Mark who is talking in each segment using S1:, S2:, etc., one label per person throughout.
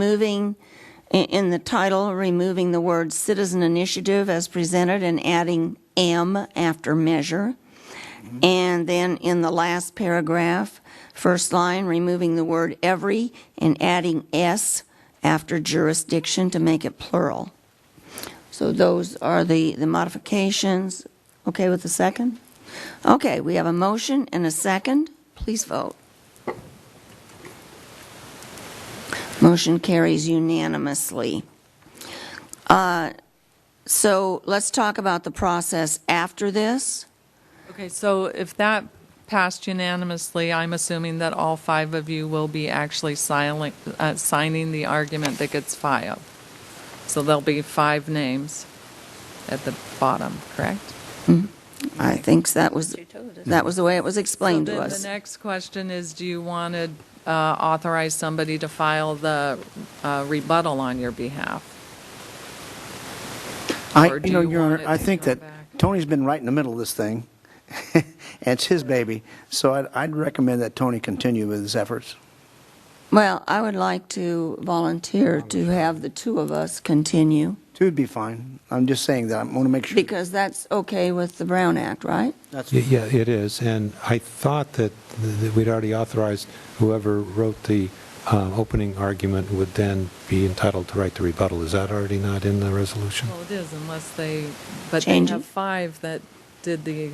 S1: removing, i- in the title, removing the word citizen initiative as presented and adding "am" after measure. And then in the last paragraph, first line, removing the word every and adding "s" after jurisdiction to make it plural. So those are the, the modifications. Okay with the second? Okay, we have a motion and a second. Please vote. Motion carries unanimously. Uh, So let's talk about the process after this.
S2: Okay, so if that passed unanimously, I'm assuming that all five of you will be actually silent, uh, signing the argument that gets filed. So there'll be five names at the bottom, correct?
S1: I think that was, that was the way it was explained to
S2: So
S1: us.
S2: then the next question is, do you want to uh, authorize somebody to file the uh, rebuttal on your behalf?
S3: I,
S2: Or
S3: you
S2: do
S3: know,
S2: you
S3: Your
S2: want
S3: Honor,
S2: it
S3: I
S2: to
S3: think
S2: come
S3: that
S2: back?
S3: Tony's been right in the middle of this thing, and it's his baby, so I'd, I'd recommend that Tony continue with his efforts.
S1: Well, I would like to volunteer to have the two of us continue,
S3: Two would be fine. I'm just saying that, I want to make sure.
S1: because that's okay with the Brown Act, right?
S3: That's-
S4: Y- Yeah, it is, and I thought that th- that we'd already authorized whoever wrote the uh, opening argument would then be entitled to write the rebuttal. Is that already not in the resolution?
S2: Well, it is unless they, but they
S1: Change it.
S2: have five that did the,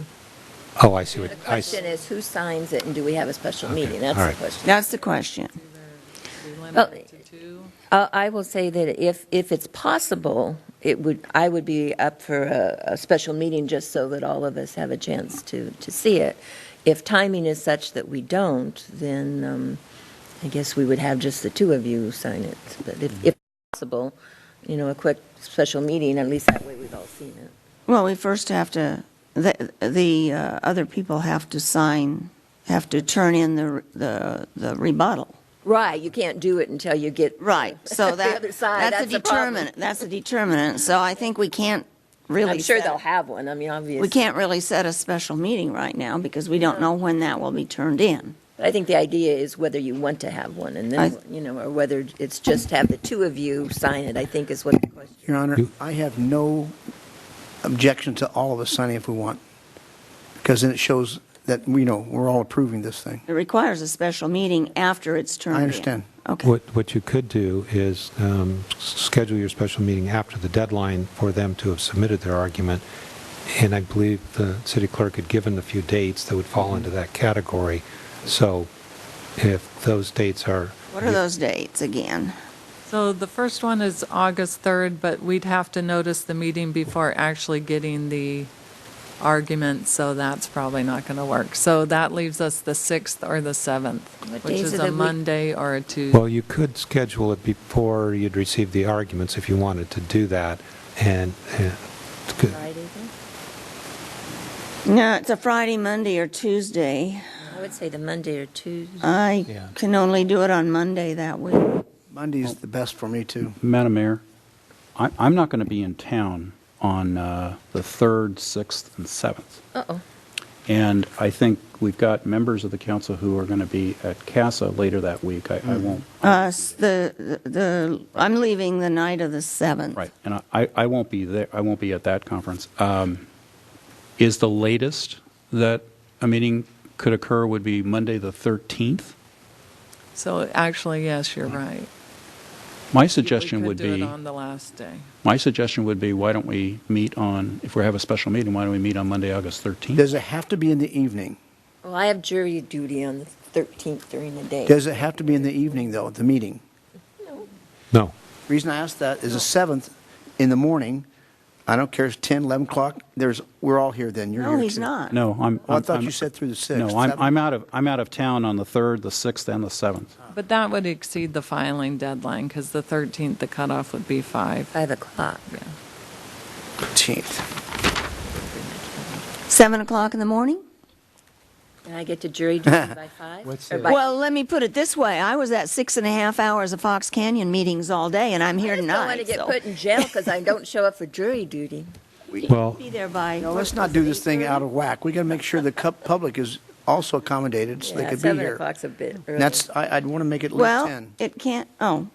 S4: Oh, I see what,
S5: The
S4: I s-
S5: question is, who signs it, and do we have a special
S4: Okay,
S5: meeting?
S4: all
S5: That's
S4: right.
S5: the question.
S1: That's the question.
S2: we
S5: Well,
S2: limited it to two.
S5: Uh, I will say that if, if it's possible, it would, I would be up for a, a special meeting just so that all of us have a chance to, to see it. If timing is such that we don't, then um, I guess we would have just the two of you sign it. But if, if possible, you know, a quick special meeting, at least that way we've all seen it.
S1: Well, we first have to, the, the uh, other people have to sign, have to turn in the, the the rebuttal.
S5: Right, you can't do it until you get.
S1: Right, so
S5: The
S1: that,
S5: other side,
S1: that's a
S5: that's the problem.
S1: determinant, that's a determinant, so I think we can't really.
S5: I'm sure
S1: set-
S5: they'll have one, I mean, obviously.
S1: We can't really set a special meeting right now, because we don't know when that will be turned in.
S5: But I think the idea is whether you want to have one, and then, you know, or whether it's just have the two of you sign it, I think is what the question.
S3: Your Honor,
S4: You-
S3: I have no objection to all of us signing if we want, because then it shows that, you know, we're all approving this thing.
S1: It requires a special meeting after it's turned in.
S3: I understand.
S1: Okay,
S4: what what you could do is um, s- schedule your special meeting after the deadline for them to have submitted their argument, and I believe the city clerk had given a few dates that would fall into that category, so if those dates are...
S1: what are those dates again?
S2: So the first one is August 3rd, but we'd have to notice the meeting before actually getting the argument, so that's probably not going to work. So that leaves us the 6th or the 7th,
S5: What
S2: which
S5: days
S2: is
S5: of
S2: a
S5: the week?
S2: Monday or a
S4: Well,
S2: Tuesday.
S4: you could schedule it before you'd receive the arguments if you wanted to do that, and, uh, it's good.
S5: Friday, then?
S1: No, it's a Friday, Monday, or Tuesday.
S5: I would say the Monday or Tuesday.
S1: I
S4: Yeah.
S1: can only do it on Monday that week.
S3: Monday's the best for me, too.
S6: Madam Mayor, I- I'm not going to be in town on uh, the 3rd, 6th, and 7th.
S5: Uh-oh.
S6: And I think we've got members of the council who are going to be at CASA later that week. I I
S2: Mm-hmm.
S6: won't,
S1: Us, Uh, the, the, I'm leaving the night of the 7th.
S6: right, and I- I I won't be there, I won't be at that conference. Um, Is the latest that a meeting could occur would be Monday, the 13th?
S2: So actually, yes, you're right.
S6: My Mm-hmm. suggestion would
S2: We could do
S6: be,
S2: it on the last day.
S6: my suggestion would be, why don't we meet on, if we have a special meeting, why don't we meet on Monday, August 13th?
S3: Does it have to be in the evening?
S5: Well, I have jury duty on the 13th during the day.
S3: Does it have to be in the evening, though, the meeting?
S4: no.
S3: Reason I ask that is the 7th in the morning, I don't care if it's 10, 11 o'clock, there's, we're all here then, you're here
S1: No,
S3: too.
S1: he's not.
S6: No, I'm.
S3: Well, I
S6: I'm-
S3: thought
S6: I'm-
S3: you said through the 6th.
S6: No, I'm,
S3: 7th.
S6: I'm out of, I'm out of town on the 3rd, the 6th, and the 7th.
S2: But that would exceed the filing deadline, because the 13th, the cutoff would be 5.
S5: 5 o'clock.
S2: Yeah.
S3: 13th.
S1: 7 o'clock in the morning?
S5: And I get to jury duty by 5?
S4: What's
S5: Or
S4: the-
S5: by-
S1: Well, let me put it this way. I was at six and a half hours of Fox Canyon meetings all day, and I'm
S5: I
S1: here
S5: just
S1: tonight.
S5: don't want to get
S1: so-
S5: put in jail because I don't show up for jury duty.
S4: Well,
S1: Be there by.
S3: No, let's not do this thing out of whack. We got to make sure the cup public is also accommodated so they
S5: Yeah,
S3: could be
S5: 7
S3: here.
S5: o'clock's a bit early.
S3: And That's, I, I'd want to make it at least
S1: Well,
S3: 10.
S1: it can't, oh,